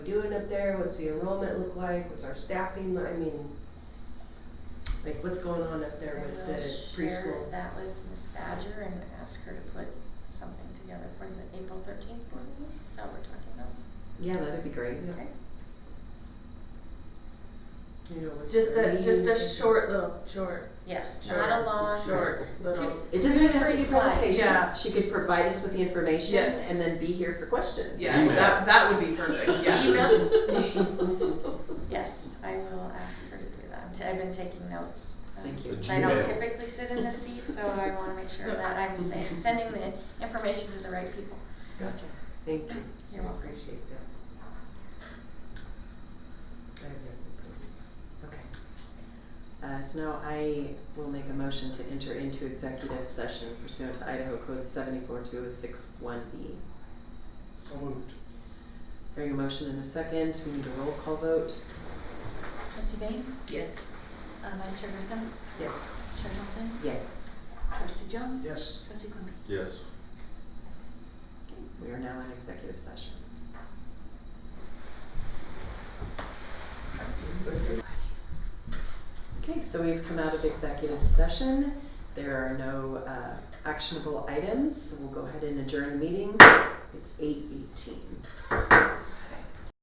doing up there? What's the enrollment look like? What's our staffing? I mean, like what's going on up there with I will the share preschool? that with Miss Badger and ask her to put something together for the April thirteenth board meeting, is that what we're talking about? Yeah, that'd be great. yeah. Okay. You know, what's Just their a just needs. a short little short. Yes, Sure. not a long. Short little. Two- It doesn't even have to be three a slides. presentation. Yeah. She could provide us with the information Yes. and then be here for questions. Yeah, Email. that that would be perfect. Yeah. Yes, I will ask her to do that, I'm t- I've been taking notes. um, Thank you. since The I don't Gmail. typically sit in this seat, so I wanna make sure that I'm sa- sending the information to the right people. Gotcha. Thank you. You're welcome. Appreciate that. I have no problem. Okay. Uh, so now I will make a motion to enter into executive session pursuant to Idaho Code seventy-four two oh six one B. So moved. Hearing a motion in a second, we need a roll call vote. Trustee Bain, Yes. uh, Vice Chair Grissom, Yes. Chair Thompson, Yes. Trustee Jones, Yes. Trustee Quimby. Yes. We are now in executive session. Okay, so we've come out of executive session. There are no uh, actionable items. so We'll go ahead and adjourn the meeting. It's eight eighteen.